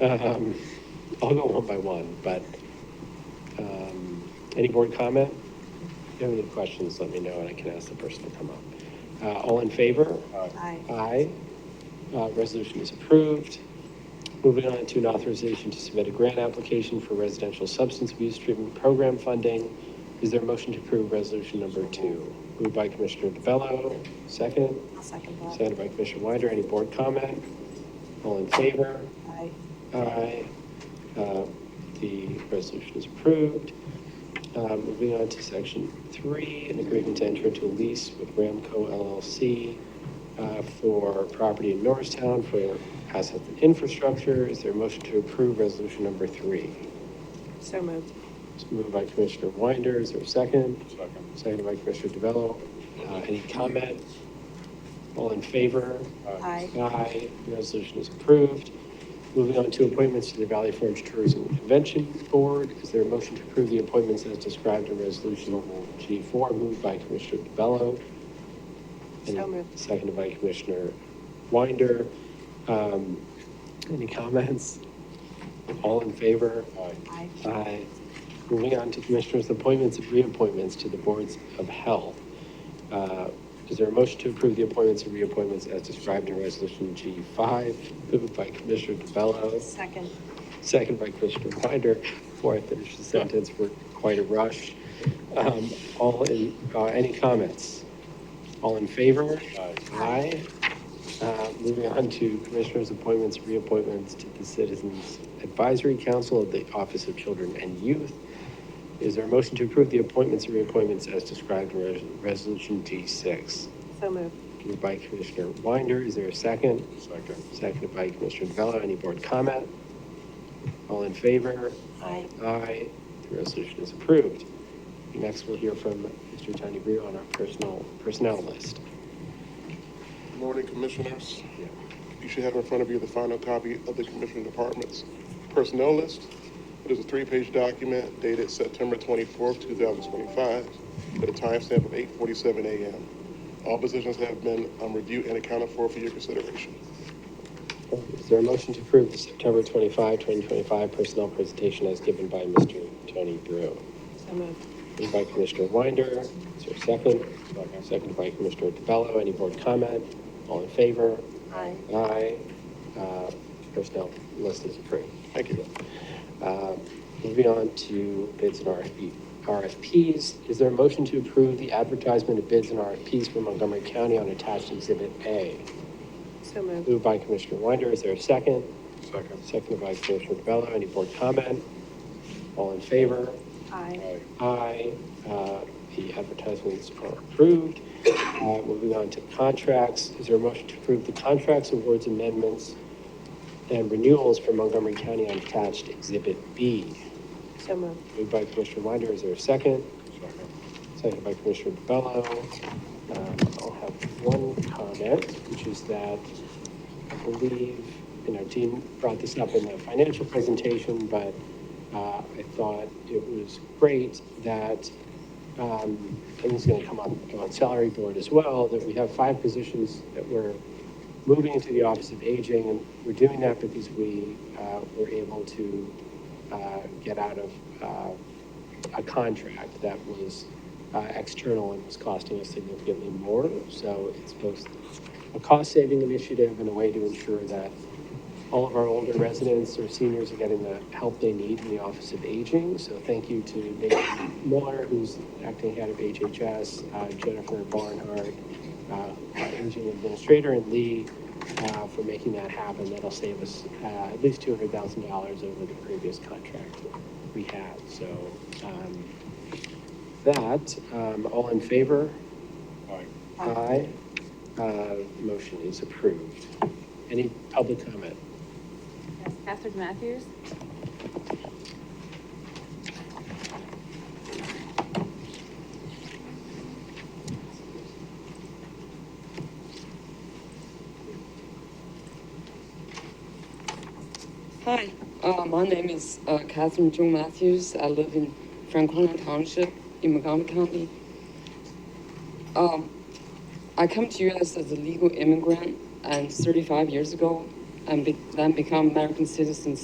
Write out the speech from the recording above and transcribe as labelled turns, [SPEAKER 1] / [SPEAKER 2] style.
[SPEAKER 1] Um, I'll go one by one, but, um, any board comment? If you have any questions, let me know, and I can ask the person to come up. Uh, all in favor?
[SPEAKER 2] Aye.
[SPEAKER 1] Aye. Uh, resolution is approved. Moving on to an authorization to submit a grant application for residential substance abuse treatment program funding. Is there a motion to approve resolution number two? Moved by Commissioner DeBello, second?
[SPEAKER 2] I'll second that.
[SPEAKER 1] Seconded by Commissioner Winder. Any board comment? All in favor?
[SPEAKER 2] Aye.
[SPEAKER 1] Aye. Uh, The resolution is approved. Uh, Moving on to section three, an agreement to enter into a lease with Ramco LLC uh, for property in Norristown for assets and infrastructure. Is there a motion to approve resolution number three?
[SPEAKER 2] So moved.
[SPEAKER 1] It's moved by Commissioner Winder. Is there a second?
[SPEAKER 3] Second.
[SPEAKER 1] Seconded by Commissioner DeVello. Uh, Any comment? All in favor?
[SPEAKER 2] Aye.
[SPEAKER 1] Aye, The resolution is approved. Moving on to appointments to the Valley Forge Tourism and Convention Board. Is there a motion to approve the appointments as described in Resolution G4, moved by Commissioner DeBello? and
[SPEAKER 2] So moved.
[SPEAKER 1] Seconded by Commissioner Winder. Um, Any comments? All in favor?
[SPEAKER 2] Aye.
[SPEAKER 1] Aye. Uh, Moving on to Commissioners' appointments and reappointments to the Boards of Health. Uh, Is there a motion to approve the appointments and reappointments as described in Resolution G5, moved by Commissioner DeBello,
[SPEAKER 2] Second.
[SPEAKER 1] second by Commissioner Winder? Before I finish the sentence, we're quite a rush. Um, All in, uh, any comments? All in favor?
[SPEAKER 3] Aye.
[SPEAKER 1] Aye. Uh, Moving on to Commissioners' appointments, reappointments to the Citizens Advisory Council of the Office of Children and Youth. Is there a motion to approve the appointments and reappointments as described in Res- Resolution D6?
[SPEAKER 2] So moved.
[SPEAKER 1] Moved by Commissioner Winder, is there a second?
[SPEAKER 3] Second.
[SPEAKER 1] Seconded by Commissioner DeVella, any board comment? All in favor?
[SPEAKER 2] Aye.
[SPEAKER 1] Aye, the resolution is approved. Next, we'll hear from Mr. Tony Brew on our personal, personnel list.
[SPEAKER 4] Good Morning, Commissioners. You should have in front of you the final copy of the Commissioner Department's personnel list. It is a three-page document dated September 24th, 2025, at a timestamp of 8:47 a.m. All positions have been um, reviewed and accounted for for your consideration.
[SPEAKER 1] Is there a motion to approve the September 25, 2025 personnel presentation as given by Mr. Tony Brew?
[SPEAKER 2] So moved.
[SPEAKER 1] Moved by Commissioner Winder, is there a second?
[SPEAKER 3] Second.
[SPEAKER 1] Seconded by Commissioner DeBello, any board comment? All in favor?
[SPEAKER 2] Aye.
[SPEAKER 1] Aye. Uh, Personnel list is approved.
[SPEAKER 4] Thank you.
[SPEAKER 1] Uh, Moving on to bids and RFP, RFPs, is there a motion to approve the advertisement of bids and RFPs for Montgomery County on attached Exhibit A?
[SPEAKER 2] So moved.
[SPEAKER 1] Moved by Commissioner Winder, is there a second?
[SPEAKER 3] Second.
[SPEAKER 1] Seconded by Commissioner DeBello. Any board comment? All in favor?
[SPEAKER 2] Aye.
[SPEAKER 3] Aye.
[SPEAKER 1] Aye. Uh, The advertisements are approved. Uh, Moving on to contracts. Is there a motion to approve the contracts, awards, amendments, and renewals for Montgomery County on attached Exhibit B?
[SPEAKER 2] So moved.
[SPEAKER 1] Moved by Commissioner Winder. Is there a second?
[SPEAKER 3] Second.
[SPEAKER 1] Seconded by Commissioner DeBello. Um, I'll have one comment, which is that I believe, you know, Dean brought this up in the financial presentation, but uh, I thought it was great that, um, and this is going to come up on salary board as well, that we have five positions that we're moving into the Office of Aging, and we're doing that because we uh, were able to uh, get out of uh, a contract that was uh, external and was costing us significantly more. So it's both a cost-saving initiative and a way to ensure that all of our older residents or seniors are getting the help they need in the Office of Aging. So thank you to Nathan Miller, who's acting head of HHS, uh, Jennifer Barnhart, uh, our Aging Administrator, and Lee uh, for making that happen. That'll save us uh, at least $200,000 over the previous contract we had. So um, that, um, all in favor?
[SPEAKER 3] Aye.
[SPEAKER 1] Aye. Uh, Motion is approved. Any public comment?
[SPEAKER 5] Yes, Catherine Matthews.
[SPEAKER 6] Hi, uh, my name is uh, Catherine June Matthews. I live in Franklin Township in Montgomery County. Um, I come to U.S. as a legal immigrant, and 35 years ago, and be- then become American citizen